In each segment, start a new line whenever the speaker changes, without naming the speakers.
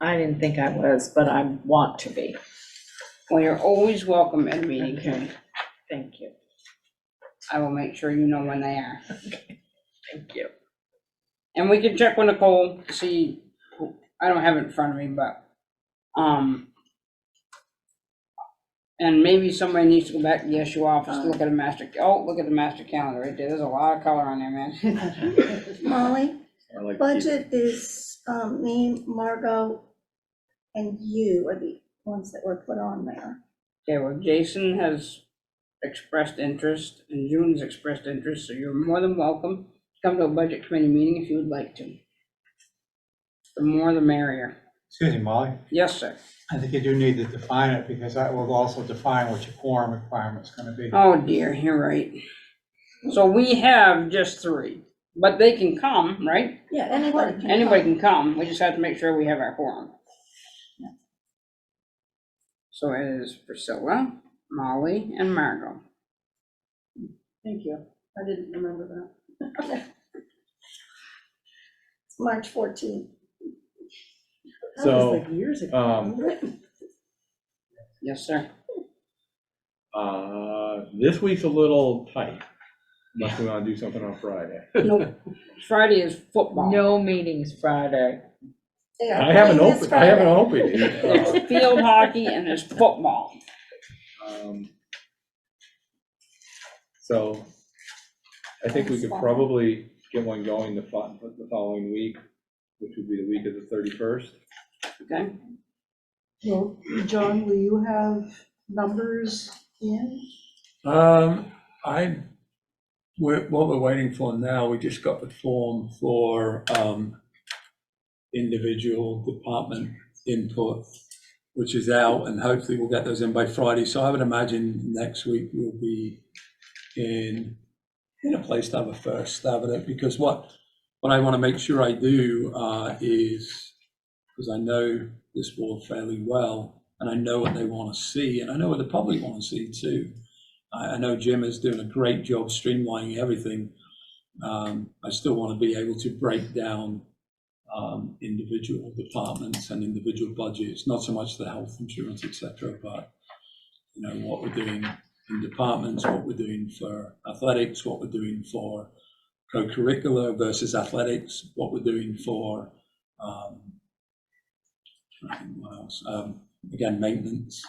I didn't think I was, but I want to be.
Well, you're always welcome at a meeting, Karen.
Thank you,
I will make sure you know when they are.
thank you.
And we can check with Nicole, see, who- I don't have it in front of me, but, um, and maybe somebody needs to go back to the SU office, look at a master, oh, look at the master calendar right there. There's a lot of color on there, man.
Molly,
I like to keep-
budget is, um, me, Margot, and you are the ones that were put on there.
Okay, well, Jason has expressed interest and June's expressed interest, so you're more than welcome to come to a budget committee meeting if you would like to. The more the merrier.
Excuse me, Molly,
Yes, sir.
I think you do need to define it because that will also define what your quorum requirement's gonna be.
Oh dear, you're right. So we have just three, but they can come, right?
Yeah, anybody can.
Anybody
come.
can come, we just have to make sure we have our quorum. So it is Priscilla, Molly, and Margot. Thank you, I didn't remember that.
It's March fourteenth.
That
So,
was like years ago.
um,
Yes, sir.
Uh, this week's a little tight, unless we wanna do something on Friday.
Nope. Friday is football.
No meetings Friday.
I haven't opened, I haven't opened it.
It's field hockey and it's football.
Um, So, I think we could
Thanks, Bob.
probably get one going the fo- the following week, which would be the week of the thirty-first.
Okay,
Well, John, will you have numbers in?
Um, I, we're, what we're waiting for now, we just got the form for, um, individual department input, which is out, and hopefully we'll get those in by Friday, so I would imagine next week we'll be in, in a place to have a first stab at it, because what, what I want to make sure I do, uh, is, because I know this board fairly well, and I know what they want to see, and I know what the public want to see too. I, I know Jim is doing a great job streamlining everything. Um, I still want to be able to break down um, individual departments and individual budgets, not so much the health insurance, et cetera, but you know, what we're doing in departments, what we're doing for athletics, what we're doing for co-curricular versus athletics, what we're doing for, um, I think what else, um, again, maintenance,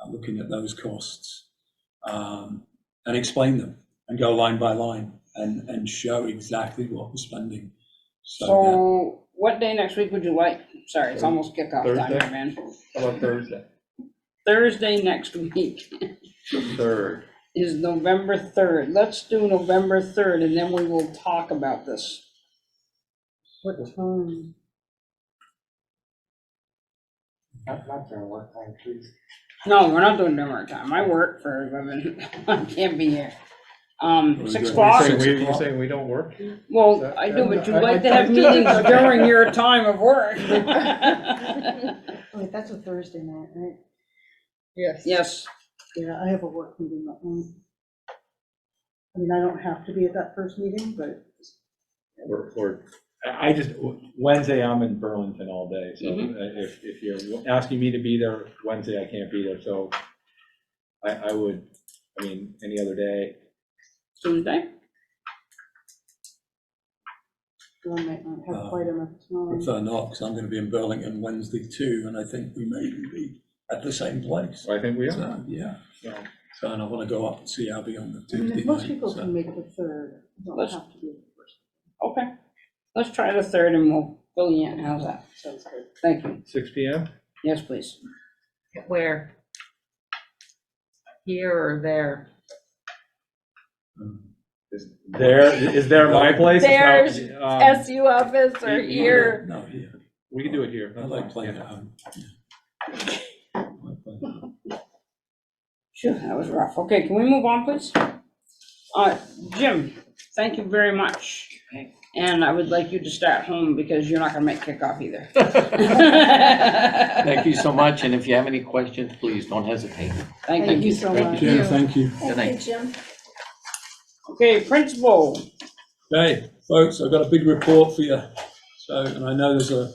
uh, looking at those costs um, and explain them and go line by line and, and show exactly what we're spending. So
so what day next week would you like? Sorry, it's almost kickoff time,
Thursday?
man.
How about Thursday?
Thursday next week
Third.
is November 3rd. Let's do November 3rd and then we will talk about this.
What time? Not, not during work time, please.
No, we're not doing dinner time. I work for a living. I can't be here. Um,
We're
six
doing
o'clock?
Saying
Six
we- You're
o'clock.
saying we don't work?
Well, I do, but you like to have meetings during your time of work.
Oh, Wait, that's a Thursday night, right?
Yes.
Yes,
Yeah, I have a work meeting that night. I mean, I don't have to be at that first meeting, but
Or, or, I I just, Wednesday, I'm in Burlington all day, so
Mm-hmm.
uh, if, if you're asking me to be there, Wednesday, I can't be there, so I, I would, I mean, any other day,
Tuesday?
I might not have
Uh,
quite enough
I
time.
prefer not because I'm going to be in Burlington Wednesday too, and I think we may be at the same place.
so I think we are.
So, yeah,
so.
so and I want to go up and see Abby on the
I
Tuesday
mean,
night.
Mm, Most people
so-
can make the third, don't
Let's-
have to be the first.
Okay. Let's try the third and we'll fill you in. How's that?
Sounds good.
Thank you.
Six P M?
Yes, please.
Where? Here or there?
Um,
Is there, is there my place? It's not-
There's
um,
SU office or
you-
here?
No, here.
We can do it here.
I
that's
like
fine,
playing
yeah.
at home. yeah. I like playing at home.
Phew, that was rough. Okay, can we move on, please? Uh, Jim, thank you very much. And I would like you to start home because you're not gonna make kickoff either.
Thank you so much, and if you have any questions, please don't hesitate.
Thank
Thank
you.
you so
Thank
much.
Jim, thank you.
Thank you, Jim.
Okay, principal.
Okay, folks, I've got a big report for you. So, and I know there's a